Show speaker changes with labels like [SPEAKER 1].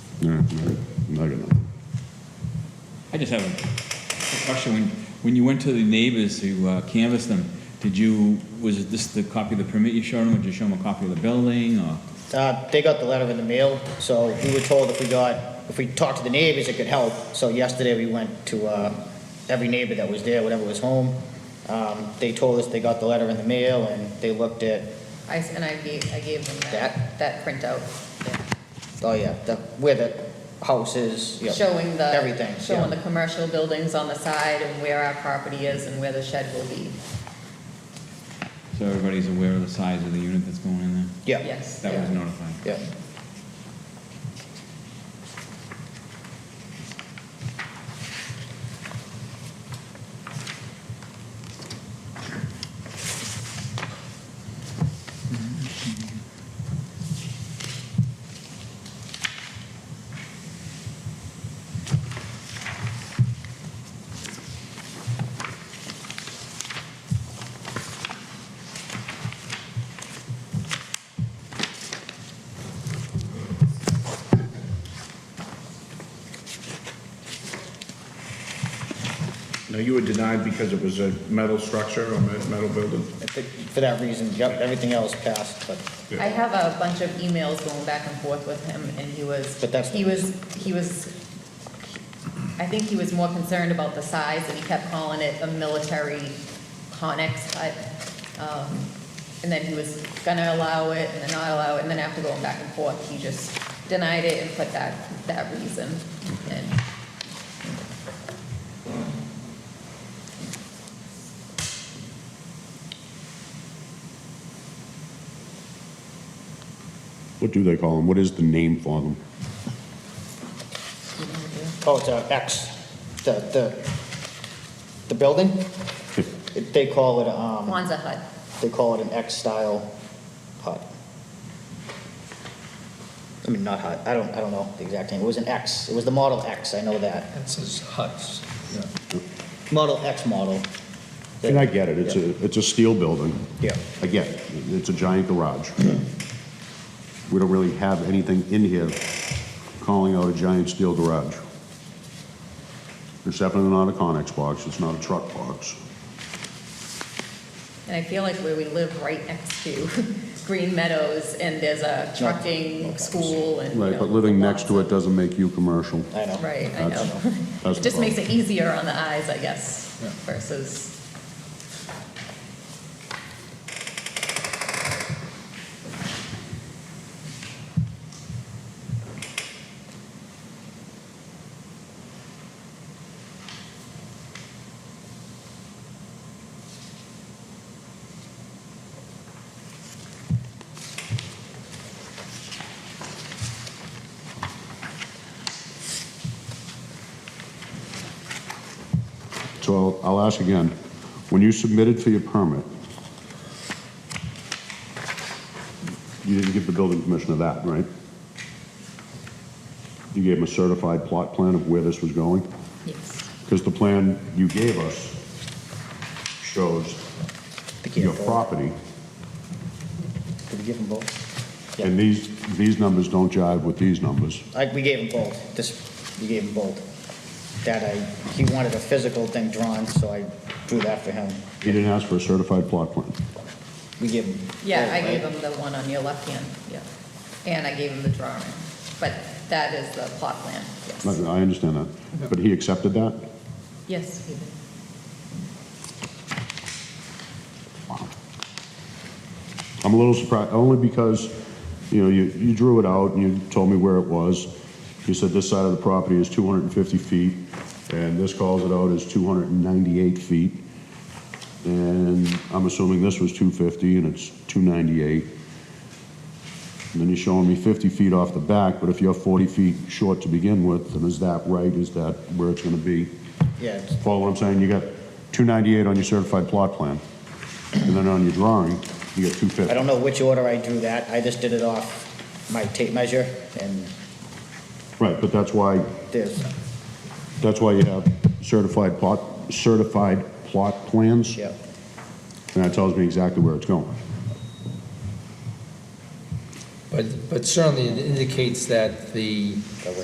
[SPEAKER 1] No, no, no, I got nothing.
[SPEAKER 2] I just have a question. When, when you went to the neighbors to uh, canvass them, did you, was this the copy of the permit you showed them? Did you show them a copy of the building or?
[SPEAKER 3] Uh, They got the letter in the mail, so we were told if we got, if we talked to the neighbors, it could help. So yesterday, we went to uh, every neighbor that was there, whatever was home. Um, They told us they got the letter in the mail, and they looked at,
[SPEAKER 4] I, s- and I gave, I gave them that, that printout,
[SPEAKER 3] oh yeah, the- where the house is, yeah.
[SPEAKER 4] showing the.
[SPEAKER 3] Everything,
[SPEAKER 4] Showing
[SPEAKER 3] yeah.
[SPEAKER 4] the commercial buildings on the side and where our property is and where the shed will be.
[SPEAKER 2] So everybody's aware of the size of the unit that's going in there?
[SPEAKER 3] Yeah,
[SPEAKER 4] Yes.
[SPEAKER 2] That was
[SPEAKER 4] yeah.
[SPEAKER 2] notified.
[SPEAKER 3] yeah.
[SPEAKER 5] Now, you were denied because it was a metal structure or me- metal building?
[SPEAKER 3] I think For that reason, yep, everything else passed, but
[SPEAKER 4] I have a bunch of emails going back and forth with him, and he was.
[SPEAKER 3] But that's-
[SPEAKER 4] He was, he was, I think he was more concerned about the size, and he kept calling it a military conex type. um, And then he was gonna allow it, and then not allow it, and then after going back and forth, he just denied it and put that, that reason. in.
[SPEAKER 1] What do they call them? What is the name for them?
[SPEAKER 3] Oh, it's a X, the, the, the building? It- They call it, um,
[SPEAKER 4] Kwanzaa hut.
[SPEAKER 3] they call it an X-style hut. I mean, not hut, I don't, I don't know the exact name, it was an X, it was the Model X, I know that.
[SPEAKER 6] It says huts.
[SPEAKER 3] Model X model.
[SPEAKER 1] And I get it, it's a, it's a steel building.
[SPEAKER 3] Yeah.
[SPEAKER 1] I get it, it's a giant garage. We don't really have anything in here calling out a giant steel garage. It's definitely not a Conex box, it's not a truck box.
[SPEAKER 4] And I feel like where we live right next to Green Meadows, and there's a trucking school and, you
[SPEAKER 1] Right, but
[SPEAKER 4] know,
[SPEAKER 1] living next to it
[SPEAKER 4] lots of-
[SPEAKER 1] doesn't make you commercial.
[SPEAKER 3] I know.
[SPEAKER 4] Right, I
[SPEAKER 1] That's-
[SPEAKER 4] know.
[SPEAKER 1] that's
[SPEAKER 4] It just
[SPEAKER 1] the
[SPEAKER 4] makes it easier on the eyes, I guess, versus,
[SPEAKER 1] So I'll ask again, when you submitted for your permit, you didn't give the building commissioner that, right? You gave him a certified plot plan of where this was going?
[SPEAKER 4] yes,
[SPEAKER 1] Because the plan you gave us shows
[SPEAKER 3] They can't
[SPEAKER 1] your
[SPEAKER 3] vote.
[SPEAKER 1] property,
[SPEAKER 3] Did we give them both? Yeah,
[SPEAKER 1] and these, these numbers don't jive with these numbers.
[SPEAKER 3] I, we gave them both, this, we gave them both. That I, he wanted a physical thing drawn, so I drew that for him.
[SPEAKER 1] You didn't ask for a certified plot plan.
[SPEAKER 3] We gave him.
[SPEAKER 4] yeah,
[SPEAKER 3] both,
[SPEAKER 4] I gave
[SPEAKER 3] right?
[SPEAKER 4] him the one on your left hand, yeah. And I gave him the drawing, but that is the plot plan, yes.
[SPEAKER 1] I I understand that, but he accepted that?
[SPEAKER 4] Yes, we did.
[SPEAKER 1] I'm a little surprised, only because, you know, you, you drew it out and you told me where it was. You said this side of the property is 250 feet, and this calls it out as 298 feet. And I'm assuming this was 250 and it's 298. And then you're showing me 50 feet off the back, but if you're 40 feet short to begin with, then is that right? Is that where it's gonna be?
[SPEAKER 3] Yeah, it's-
[SPEAKER 1] Follow what I'm saying? You got 298 on your certified plot plan, and then on your drawing, you got 250.
[SPEAKER 3] I don't know which order I drew that, I just did it off my tape measure, and
[SPEAKER 1] Right, but that's why,
[SPEAKER 3] there's,
[SPEAKER 1] that's why you have certified plot, certified plot plans,
[SPEAKER 3] yeah.
[SPEAKER 1] and that tells me exactly where it's going.
[SPEAKER 6] But, but certainly it indicates that the